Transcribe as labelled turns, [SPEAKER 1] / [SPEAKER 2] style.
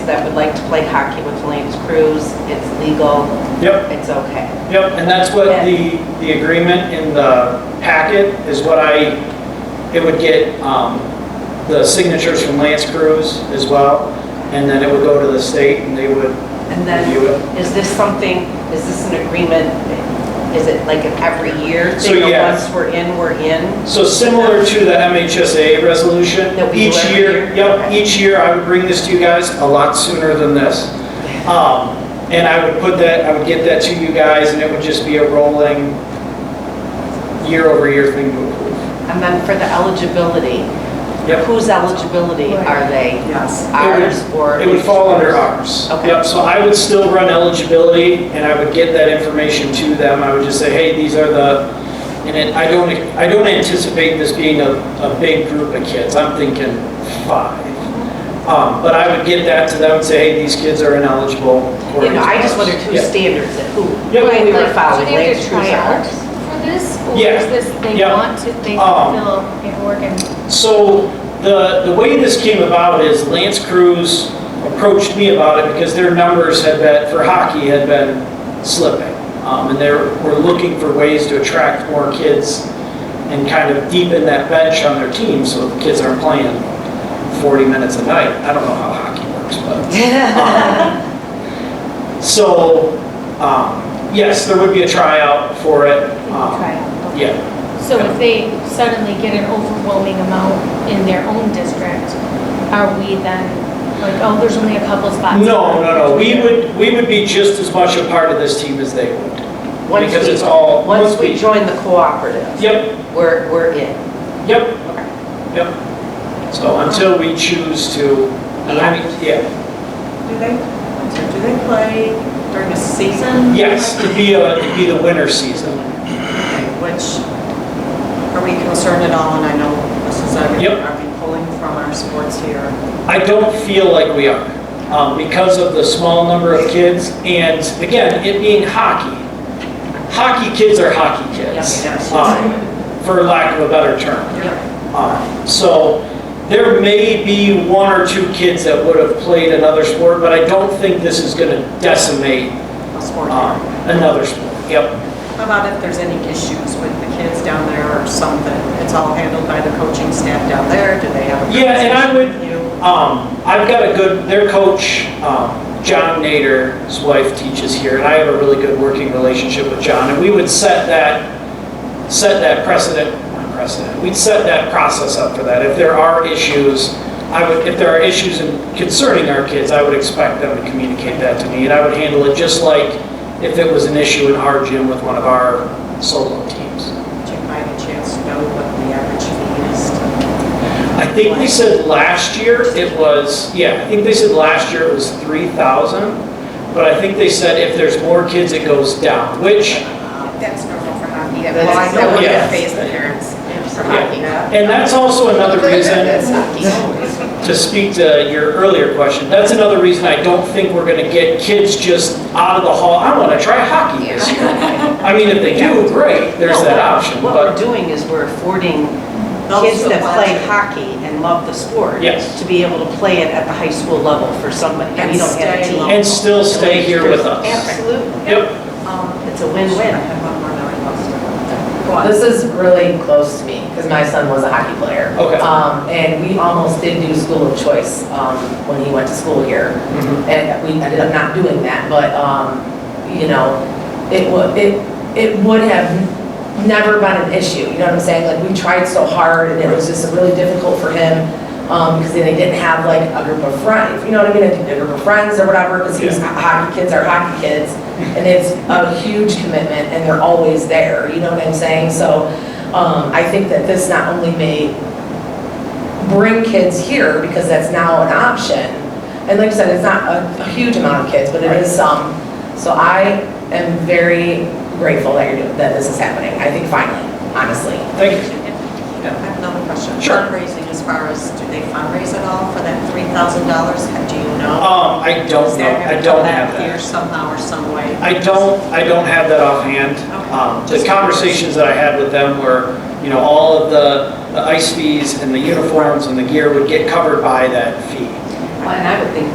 [SPEAKER 1] that would like to play hockey with Elaine's Cruz, it's legal,
[SPEAKER 2] Yep,
[SPEAKER 1] it's okay.
[SPEAKER 2] yep, and that's what the, the agreement in the packet is what I, it would get um, the signatures from Lance Cruz as well, and then it would go to the state and they would
[SPEAKER 1] And
[SPEAKER 2] review
[SPEAKER 1] then,
[SPEAKER 2] it.
[SPEAKER 1] is this something, is this an agreement, is it like an every year
[SPEAKER 2] So,
[SPEAKER 1] thing? or
[SPEAKER 2] yeah.
[SPEAKER 1] Once we're in, we're in?
[SPEAKER 2] So similar to the MHSA resolution,
[SPEAKER 1] That we do
[SPEAKER 2] each
[SPEAKER 1] every year?
[SPEAKER 2] year, yep,
[SPEAKER 1] Okay.
[SPEAKER 2] each year I would bring this to you guys a lot sooner than this. Um, And I would put that, I would get that to you guys and it would just be a rolling year-over-year thing. to approve.
[SPEAKER 1] And then for the eligibility,
[SPEAKER 2] Yep.
[SPEAKER 1] whose eligibility are they? Yes. Ours or?
[SPEAKER 2] It would fall under ours.
[SPEAKER 1] Okay.
[SPEAKER 2] Yep, so I would still run eligibility, and I would get that information to them. I would just say, hey, these are the, and it, I don't, I don't anticipate this being a, a big group of kids. I'm thinking five. Um, but I would get that to them and say, hey, these kids are ineligible.
[SPEAKER 1] You know, I just wondered
[SPEAKER 2] according
[SPEAKER 1] whose
[SPEAKER 2] to ours.
[SPEAKER 1] standards, that who,
[SPEAKER 2] Yeah.
[SPEAKER 1] who we were
[SPEAKER 3] Like,
[SPEAKER 1] following,
[SPEAKER 3] Do they have
[SPEAKER 1] Lance
[SPEAKER 3] to
[SPEAKER 1] Cruz
[SPEAKER 3] try
[SPEAKER 1] or
[SPEAKER 3] out
[SPEAKER 1] ours?
[SPEAKER 3] for this? Or
[SPEAKER 2] Yeah.
[SPEAKER 3] is this, they
[SPEAKER 2] Yeah.
[SPEAKER 3] want to, they
[SPEAKER 2] Um,
[SPEAKER 3] fulfill paperwork and,
[SPEAKER 2] Yep. So the, the way this came about is Lance Cruz approached me about it because their numbers had been, for hockey, had been slipping. Um, and they were looking for ways to attract more kids and kind of deepen that bench on their team so the kids aren't playing 40 minutes a night. I don't know how hockey works, but. um, So, um, yes, there would be a tryout for it. um,
[SPEAKER 3] try out.
[SPEAKER 2] Yeah.
[SPEAKER 3] So if they suddenly get an overwhelming amount in their own district, are we then, like, oh, there's only a couple spots?
[SPEAKER 2] No, no, no, we would, we would be just as much a part of this team as they would.
[SPEAKER 1] Once
[SPEAKER 2] Because
[SPEAKER 1] we-
[SPEAKER 2] it's all-
[SPEAKER 1] Once
[SPEAKER 2] once
[SPEAKER 1] we
[SPEAKER 2] we-
[SPEAKER 1] join the cooperative,
[SPEAKER 2] Yep,
[SPEAKER 1] we're, we're in.
[SPEAKER 2] yep, yep. So until we choose to, I mean, yeah,
[SPEAKER 4] Do they, do they play during the season?
[SPEAKER 2] yes, it'd be, a- it'd be the winter season.
[SPEAKER 4] Okay, Which, are we concerned at all? And I know this is, a-
[SPEAKER 2] Yep.
[SPEAKER 4] are we pulling from our sports here?
[SPEAKER 2] I don't feel like we are, um, because of the small number of kids, and again, it being hockey. Hockey kids are hockey kids,
[SPEAKER 4] Yep, yes.
[SPEAKER 2] um, for lack of a better term.
[SPEAKER 4] Yep.
[SPEAKER 2] Um, So there may be one or two kids that would have played another sport, but I don't think this is going to decimate
[SPEAKER 4] Sport
[SPEAKER 2] um,
[SPEAKER 4] here.
[SPEAKER 2] another sport. Yep,
[SPEAKER 4] How about if there's any issues with the kids down there or something? It's all handled by the coaching staff down there? Do they have? a
[SPEAKER 2] Yeah, and I would-
[SPEAKER 4] conversation with you?
[SPEAKER 2] Um, I've got a good, their coach, um, John Nader's wife teaches here, and I have a really good working relationship with John, and we would set that, set that precedent, not precedent, we'd set that process up for that. If there are issues, I would, if there are issues in- concerning our kids, I would expect them to communicate that to me, and I would handle it just like if it was an issue in our gym with one of our solo teams.
[SPEAKER 4] Do you by any chance know what the average fee is?
[SPEAKER 2] I think they said last year it was, yeah, I think they said last year it was 3,000, but I think they said if there's more kids, it goes down, which,
[SPEAKER 5] That's normal for hockey.
[SPEAKER 1] That's-
[SPEAKER 5] Well, I know what
[SPEAKER 2] yeah.
[SPEAKER 5] it pays the parents for hockey.
[SPEAKER 2] and that's also another
[SPEAKER 5] That's
[SPEAKER 2] reason,
[SPEAKER 5] hockey.
[SPEAKER 2] to speak to your earlier question, that's another reason I don't think we're gonna get kids just out of the hall, I wanna try hockey this year. I mean, if they do, great, there's
[SPEAKER 1] No,
[SPEAKER 2] that
[SPEAKER 1] what-
[SPEAKER 2] option,
[SPEAKER 1] What we're
[SPEAKER 2] but,
[SPEAKER 1] doing is we're affording
[SPEAKER 4] Those
[SPEAKER 1] kids
[SPEAKER 4] who
[SPEAKER 1] that
[SPEAKER 4] want
[SPEAKER 1] play
[SPEAKER 4] to.
[SPEAKER 1] hockey and love the sport.
[SPEAKER 2] Yes.
[SPEAKER 1] To be able to play it at the high school level for somebody, and
[SPEAKER 4] And
[SPEAKER 1] you don't have a
[SPEAKER 4] stay
[SPEAKER 1] team.
[SPEAKER 4] local.
[SPEAKER 2] and still stay here with us.
[SPEAKER 1] Absolutely.
[SPEAKER 2] Yep,
[SPEAKER 4] Um,
[SPEAKER 1] It's a
[SPEAKER 4] I
[SPEAKER 1] win-win.
[SPEAKER 4] have one more that I lost. Go on.
[SPEAKER 6] This is really close to me, because my son was a hockey player.
[SPEAKER 2] Okay.
[SPEAKER 6] Um, and we almost did do school of choice, um, when he went to school here.
[SPEAKER 2] Mhm.
[SPEAKER 6] And we ended up not doing that, but, um, you know, it would, it, it would have never been an issue, you know what I'm saying? Like, we tried so hard, and it was just really difficult for him, um, because then he didn't have like a group of friends, you know what I mean? A group of friends or whatever, because he was,
[SPEAKER 2] Yeah.
[SPEAKER 6] hockey kids are hockey kids. And it's a huge commitment and they're always there, you know what I'm saying? So um, I think that this not only may bring kids here because that's now an option. And like I said, it's not a, a huge amount of kids, but it is some. So I am very grateful that you're, doing- that this is happening. I think finally, honestly.
[SPEAKER 2] thank you.
[SPEAKER 4] I have another question.
[SPEAKER 2] Sure.
[SPEAKER 4] Fundraising, as far as, do they fundraise at all for that $3,000? Do you know?
[SPEAKER 2] Um, I don't
[SPEAKER 4] Is
[SPEAKER 2] know,
[SPEAKER 4] there
[SPEAKER 2] I
[SPEAKER 4] gonna
[SPEAKER 2] don't
[SPEAKER 4] come
[SPEAKER 2] have
[SPEAKER 4] back
[SPEAKER 2] that.
[SPEAKER 4] Here somehow or some way?
[SPEAKER 2] I don't, I don't have that offhand.
[SPEAKER 4] Okay.
[SPEAKER 2] Um, The conversations that I had with them were, you know, all of the the ice fees and the uniforms and the gear would get covered by that fee.
[SPEAKER 1] And I would think